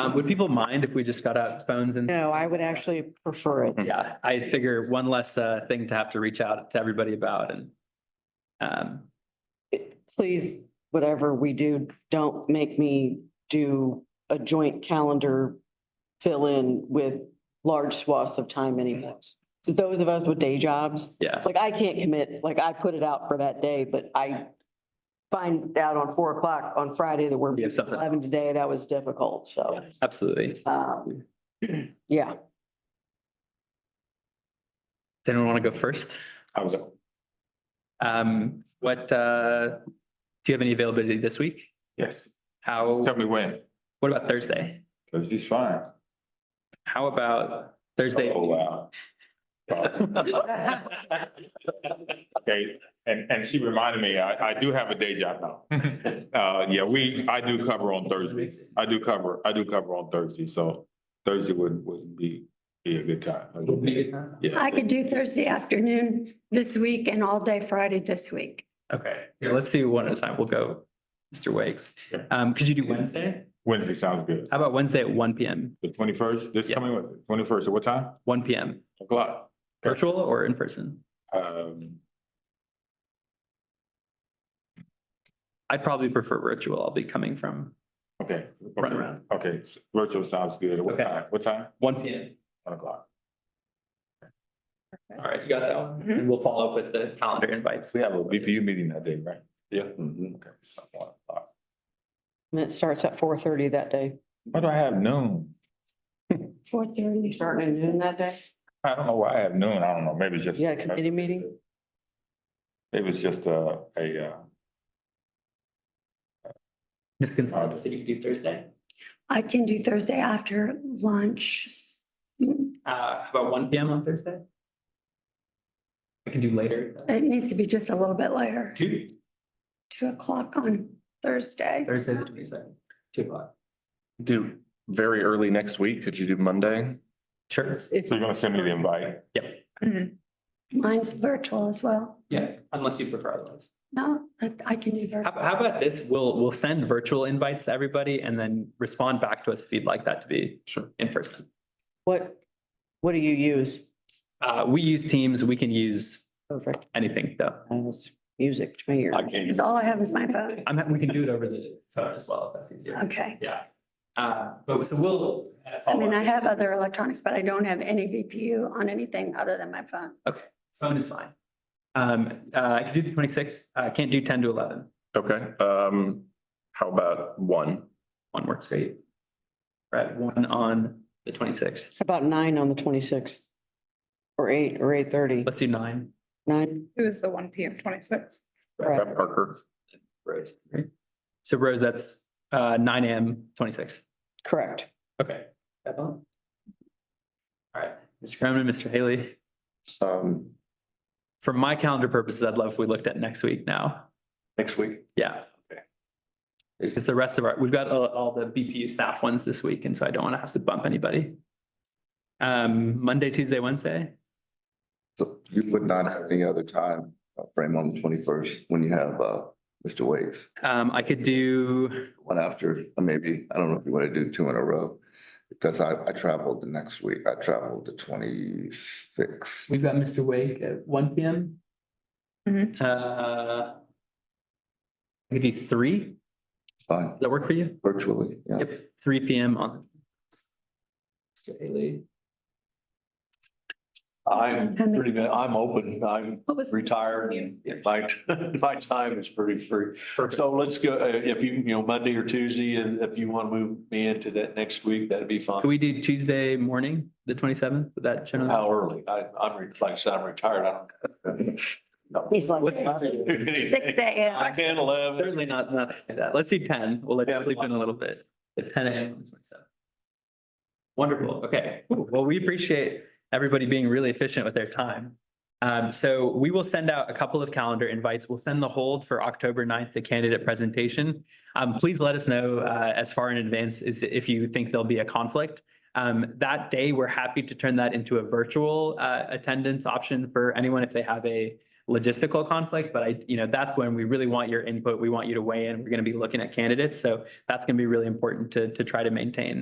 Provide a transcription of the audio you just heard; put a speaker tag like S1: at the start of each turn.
S1: Um, would people mind if we just got out phones and?
S2: No, I would actually prefer it.
S1: Yeah, I figure one less, uh, thing to have to reach out to everybody about and. Um,
S2: Please, whatever we do, don't make me do a joint calendar fill in with large swaths of time anymore. So those of us with day jobs,
S1: yeah,
S2: like I can't commit, like I put it out for that day, but I find out on four o'clock on Friday that we're
S1: You have something.
S2: eleven today, that was difficult, so,
S1: absolutely.
S2: um, yeah.
S1: Does Anyone want to go first?
S3: I was,
S1: Um, what, uh, do you have any availability this week?
S3: yes,
S1: How,
S3: just tell me when,
S1: what about Thursday?
S3: because he's fine.
S1: How about Thursday?
S3: Oh, wow. Okay, and, and she reminded me, I, I do have a day job now. Uh, yeah, we, I do cover on Thursdays. I do cover, I do cover on Thursday, so Thursday would, would be, be a good time. Yeah.
S4: I could do Thursday afternoon this week and all day Friday this week.
S1: Okay, here, let's do one at a time. We'll go, Mr. Wakes.
S3: Sure.
S1: Um, could you do Wednesday?
S3: Wednesday sounds good.
S1: How about Wednesday at one PM,
S3: The twenty-first, this
S1: Yeah.
S3: coming Wednesday, twenty-first, at what time?
S1: one PM,
S3: O'clock. Sure.
S1: virtual or in person?
S3: Um,
S1: I'd probably prefer virtual. I'll be coming from
S3: okay.
S1: Run around.
S3: Okay, s- virtual sounds good. What
S1: Okay.
S3: time? What time?
S1: one PM.
S3: One o'clock.
S1: All right, you got that one?
S4: Mhm.
S1: And we'll follow up with the calendar invites.
S3: We have a BPU meeting that day, right? Yeah.
S5: Mm-hmm,
S3: Okay, so one
S5: uh,
S3: o'clock.
S2: And it starts at four thirty that day.
S3: Why do I have noon?
S4: Four thirty.
S2: Starting at noon that day?
S3: I don't know why I have noon. I don't know. Maybe it's just.
S2: You got a committee meeting?
S3: It was just a, a, uh,
S1: Ms. Gonzalez, did you do Thursday?
S4: I can do Thursday after lunch. It
S1: Uh, how about one PM on Thursday? I can do later, uh,
S4: needs to be just a little bit later,
S1: two,
S4: two o'clock on Thursday.
S1: Thursday, the twenty second, two o'clock.
S5: Do very early next week. Could you do Monday?
S1: Sure.
S3: so you're gonna send me the invite?
S1: Yep,
S4: Mine's virtual as well.
S1: yeah, unless you prefer otherwise.
S4: No, I I can do
S1: How,
S4: virtual.
S1: how about this? We'll, we'll send virtual invites to everybody and then respond back to us if you'd like that to be
S5: Sure.
S1: in person.
S2: What, what do you use?
S1: Uh, we use Teams, we can use
S2: Perfect.
S1: anything though.
S2: That's music to my ears.
S3: I can't.
S4: Because all I have is my phone.
S1: I'm, ha- we can do it over the phone as well if that's easier.
S4: Okay.
S1: Yeah. Uh, but so we'll. uh,
S4: I mean, I have other electronics, but I don't have any VPU on anything other than my phone.
S1: Phone is fine. Um, uh, I can do the twenty-sixth, I can't do ten to eleven.
S5: Okay, um, how about one?
S1: One works great. We're at one on the twenty-sixth.
S2: About nine on the twenty-sixth. Or eight, or eight thirty,
S1: Let's do nine.
S2: nine,
S6: It was the one P M twenty-six.
S2: correct,
S5: Brett Parker.
S1: Rose. So Rose, that's, uh, nine AM, twenty-sixth.
S2: correct.
S1: Okay. That one? All right, Mr. Cronin, Mr. Haley,
S5: Um,
S1: for my calendar purposes, I'd love if we looked at next week now.
S5: next week.
S1: Yeah.
S5: Okay.
S1: Because the rest of our, we've got all, all the BPU staff ones this week, and so I don't want to have to bump anybody. Um, Monday, Tuesday, Wednesday,
S7: So you would not have any other time uh, frame on the twenty-first when you have, uh, Mr. Wakes,
S1: um, I could do,
S7: one after, uh, maybe, I don't know if you want to do two in a row. Because I, I traveled the next week, I traveled the twenty-sixth,
S1: we've got Mr. Wake at one P M.
S6: Mhm.
S1: Uh. I could do three, does
S7: fine,
S1: that work for you?
S7: virtually, yeah.
S1: Yep, three P M on. Mr. Haley,
S8: I'm pretty, good. I'm open. I'm
S4: What was-
S8: retired. and My, my time is pretty free. So let's go, uh, if you, you know, Monday or Tuesday, and if you want to move me into that next week, that'd be
S1: can
S8: fine.
S1: we do Tuesday morning, the twenty seventh, would that generally?
S8: How early? I, I'm, re- like I said, I'm retired. I don't.
S2: He's like,
S8: do anything.
S4: Six AM.
S8: I can eleven.
S1: Certainly not, not like that. Let's do ten. We'll let you sleep in a little bit. At ten AM on the twenty-seventh. Wonderful. Okay. Well, we appreciate everybody being really efficient with their time. Um, so we will send out a couple of calendar invites. We'll send the hold for October 9th, the candidate presentation. Um, please let us know, uh, as far in advance as if you think there'll be a conflict. Um, that day, we're happy to turn that into a virtual, uh, attendance option for anyone if they have a, logistical conflict, but I, you know, that's when we really want your input. We want you to weigh in. We're going to be looking at candidates. So that's going to be really important to, to try to maintain.